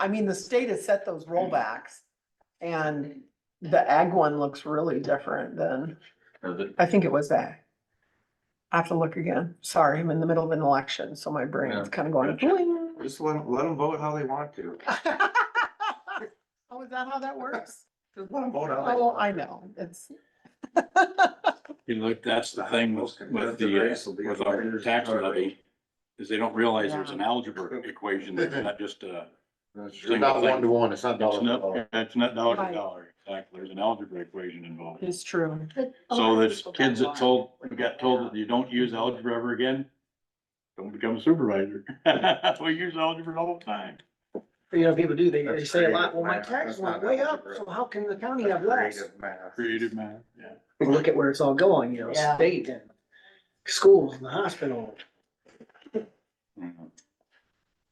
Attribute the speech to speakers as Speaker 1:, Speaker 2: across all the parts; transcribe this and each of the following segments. Speaker 1: I mean, the state has set those rollbacks and the ag one looks really different than,
Speaker 2: Does it?
Speaker 1: I think it was that. I have to look again. Sorry, I'm in the middle of an election, so my brain's kind of going. bling.
Speaker 2: Just let, 'em- let them vote how they want to.
Speaker 1: Oh, is that how that works?
Speaker 2: Just let them vote how they
Speaker 1: Oh,
Speaker 2: want.
Speaker 1: I know, it's.
Speaker 3: You know, that's the thing with, with the, uh, with our tax levy, is they don't realize there's an algebra equation, that's not just a.
Speaker 2: It's not one to one, it's not
Speaker 3: It's
Speaker 2: dollar for dollar.
Speaker 3: not, it's not dollar
Speaker 1: Right.
Speaker 3: to dollar, exactly, there's an algebra equation involved.
Speaker 1: It's true. Oh,
Speaker 3: So there's kids that told, got told that you don't use algebra ever again, don't become a supervisor. We use algebra all the time.
Speaker 4: You know, people do, they, they
Speaker 2: That's
Speaker 4: say a lot,
Speaker 2: creative
Speaker 4: well, my
Speaker 2: math.
Speaker 4: taxes
Speaker 2: That's not
Speaker 4: went way up,
Speaker 2: algebra.
Speaker 4: so how can the county have
Speaker 2: That's
Speaker 4: less?
Speaker 2: creative math.
Speaker 3: Creative mind, yeah.
Speaker 4: Well, Look at where it's all going, you know,
Speaker 1: Yeah.
Speaker 4: state and schools and the hospital.
Speaker 3: Mhm.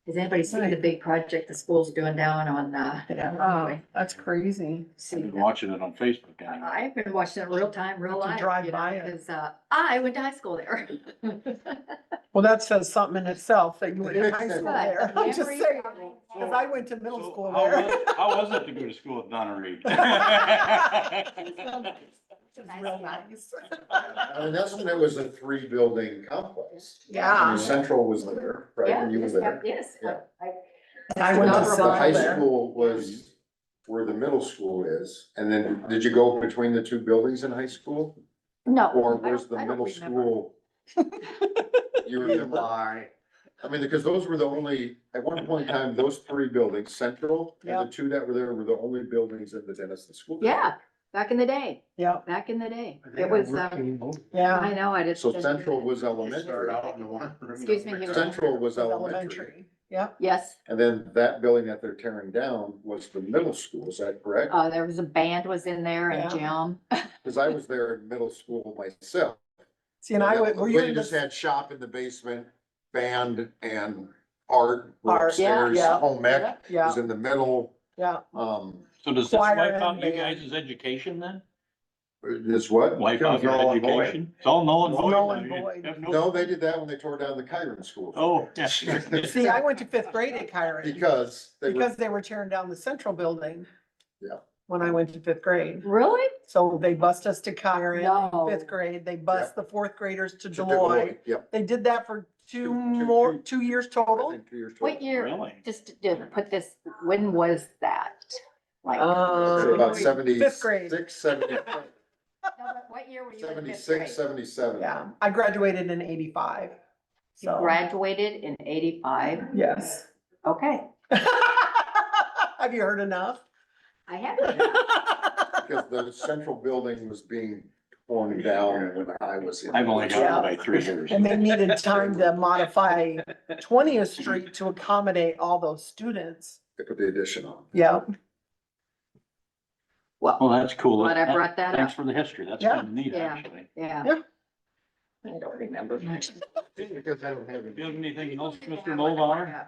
Speaker 5: Has anybody seen the big project the school's doing down on, uh?
Speaker 1: Yeah, oh, that's crazy.
Speaker 3: I've
Speaker 5: See,
Speaker 3: been watching it on Facebook. anyway.
Speaker 5: I've been watching it real time,
Speaker 1: Have
Speaker 5: real
Speaker 1: to
Speaker 5: life.
Speaker 1: drive
Speaker 5: you know,
Speaker 1: by it.
Speaker 5: Cause, uh, I went to high school there.
Speaker 1: Well, that says something in itself that you went to high school
Speaker 5: But
Speaker 1: there. I'm just
Speaker 5: memories
Speaker 1: saying,
Speaker 5: are-
Speaker 1: cause I went to middle
Speaker 3: So
Speaker 1: school
Speaker 3: how
Speaker 1: there.
Speaker 3: was- How was it to go to school with Donna Reed?
Speaker 1: It's
Speaker 5: Nice
Speaker 1: real
Speaker 5: guy.
Speaker 1: nice.
Speaker 6: I mean, that's when it was a three building complex. I mean,
Speaker 1: Yeah.
Speaker 6: Central was there, right,
Speaker 5: Yeah,
Speaker 6: when you were
Speaker 5: yes, yeah,
Speaker 6: there.
Speaker 5: yes.
Speaker 6: Yeah.
Speaker 5: I-
Speaker 1: I went
Speaker 6: And
Speaker 1: to
Speaker 6: The
Speaker 5: Not
Speaker 6: the high
Speaker 1: Central there.
Speaker 6: school was where the middle school is, and then did you go between the two buildings in high school?
Speaker 5: No.
Speaker 6: Or
Speaker 5: I don't-
Speaker 6: was the
Speaker 5: I don't
Speaker 6: middle
Speaker 5: remember.
Speaker 6: school? You remember?
Speaker 4: Lie.
Speaker 6: I mean, because those were the only, at one point in time, those three buildings, Central and
Speaker 1: Yep.
Speaker 6: the two that were there were the only buildings in the Denison School. District.
Speaker 5: Yeah, back in the day,
Speaker 1: Yep,
Speaker 5: back in the day. It was, uh,
Speaker 1: yeah.
Speaker 5: I know, I just.
Speaker 6: So Central was
Speaker 2: Start
Speaker 6: elementary,
Speaker 2: out in the one room.
Speaker 5: Excuse me, he was-
Speaker 6: Central was elementary.
Speaker 1: Elementary, yep.
Speaker 5: Yes,
Speaker 6: And then that building that they're tearing down was the middle school, is that correct?
Speaker 5: uh, there was a band was in there and Jim.
Speaker 6: Cause I was there in middle school myself.
Speaker 1: See, and I went, were you
Speaker 6: We
Speaker 1: in
Speaker 6: just
Speaker 1: the,
Speaker 6: had shop in the basement, band and art were
Speaker 1: Art,
Speaker 5: yeah,
Speaker 6: upstairs,
Speaker 1: yeah.
Speaker 6: home ec
Speaker 1: yeah,
Speaker 6: was in the middle.
Speaker 1: yeah.
Speaker 6: Um,
Speaker 3: So does this
Speaker 1: Choir
Speaker 3: wipe
Speaker 1: and
Speaker 3: out you
Speaker 1: band.
Speaker 3: guys' education then?
Speaker 6: this what?
Speaker 3: Wipe out your
Speaker 2: null and void.
Speaker 3: education? It's all null and void.
Speaker 1: Null and
Speaker 3: now. You
Speaker 1: void.
Speaker 3: have
Speaker 6: No, they did that when they tore down the Kyron School.
Speaker 3: Oh, yeah.
Speaker 1: See, I went to fifth grade at Kyron
Speaker 6: Because they were,
Speaker 1: because they were tearing down the central building.
Speaker 6: Yeah.
Speaker 1: When I went to fifth grade.
Speaker 5: Really?
Speaker 1: So they bused us to Kyron,
Speaker 5: No.
Speaker 1: in fifth grade, they bust the fourth graders to
Speaker 6: to
Speaker 1: Deloitte.
Speaker 6: Deloitte, yep.
Speaker 1: They did that for two
Speaker 6: Two- two-
Speaker 1: more,
Speaker 6: two-
Speaker 1: two years
Speaker 6: I
Speaker 1: total.
Speaker 6: think two years total.
Speaker 5: What year?
Speaker 3: Really?
Speaker 5: Just to- to put this, when was that? Like, no,
Speaker 6: I'd say About
Speaker 1: Um,
Speaker 6: seventy-six,
Speaker 1: Fifth grade.
Speaker 6: seventy,
Speaker 5: but what year were you in fifth
Speaker 6: seventy-six,
Speaker 5: grade?
Speaker 6: seventy-seven.
Speaker 1: Yeah, I graduated in eighty-five.
Speaker 5: You
Speaker 1: So,
Speaker 5: graduated in eighty-five?
Speaker 1: yes.
Speaker 5: Okay,
Speaker 1: Have you heard enough?
Speaker 5: I have.
Speaker 6: Because the central building was being torn down when I was in.
Speaker 3: I've only got it by three years.
Speaker 1: And they needed time to modify Twentieth Street to accommodate all those students.
Speaker 6: They Put the addition on.
Speaker 1: Yeah,
Speaker 3: Well,
Speaker 5: Well,
Speaker 3: that's cool.
Speaker 5: Glad I brought that
Speaker 3: Thanks
Speaker 5: up,
Speaker 3: for the history. That's
Speaker 1: Yeah.
Speaker 3: kind of neat,
Speaker 5: Yeah.
Speaker 3: actually.
Speaker 5: yeah.
Speaker 1: I don't remember.
Speaker 6: Because I don't have
Speaker 3: Do you have anything
Speaker 5: Oh,
Speaker 3: else, Mr. Mulbauer?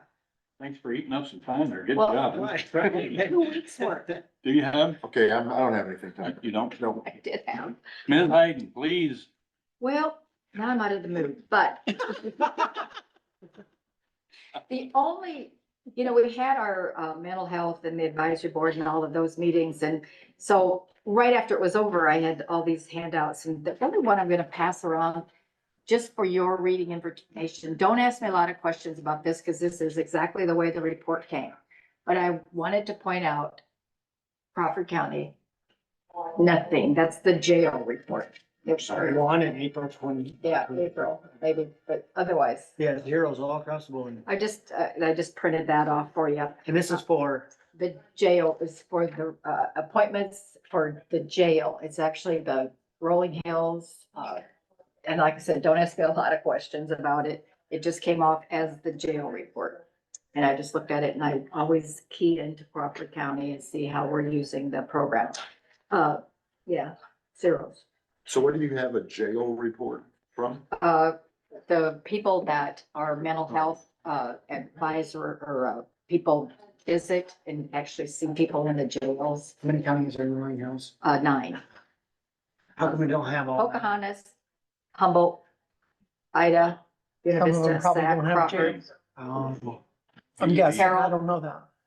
Speaker 3: Thanks for eating up some time there. Good
Speaker 5: Well,
Speaker 3: job.
Speaker 5: Two weeks worth,
Speaker 3: Do you have,
Speaker 6: Okay, I'm, I don't have anything to
Speaker 3: you don't?
Speaker 6: No.
Speaker 5: I did have.
Speaker 3: Ms. Hayden, please.
Speaker 5: Well, now I'm out of the mood, but the only, you know, we had our uh, mental health and the advisory board and all of those meetings. And so right after it was over, I had all these handouts and the only one I'm going to pass around just for your reading information. Don't ask me a lot of questions about this because this is exactly the way the report came. But I wanted to point out Crawford County, nothing. That's the jail report.
Speaker 4: Sorry, one in April twenty.
Speaker 5: Yeah, April, maybe, but otherwise,
Speaker 4: Yeah, zeros all across the board.
Speaker 5: I just, uh, I just printed that off for you.
Speaker 4: And this is for,
Speaker 5: The jail is for the, uh, appointments for the jail. It's actually the Rolling Hills. uh, And like I said, don't ask me a lot of questions about it. It just came off as the jail report. And I just looked at it and I always key into Crawford County and see how we're using the program. Uh, yeah, zeros.
Speaker 6: So what do you have a jail report from?
Speaker 5: uh, the people that are mental health, uh, advisor or, uh, people visit and actually see people in the jails,
Speaker 4: how many counties are in Roaring Hills?
Speaker 5: uh, nine.
Speaker 4: How come we don't have all? that?
Speaker 5: Pocahontas, Humboldt, Ida, Buena
Speaker 1: Some of them
Speaker 5: Vista,
Speaker 1: probably
Speaker 5: Sac,
Speaker 1: don't have
Speaker 5: Crawford.
Speaker 4: Um,
Speaker 1: I'm guessing, I
Speaker 5: Carol.
Speaker 1: don't know that.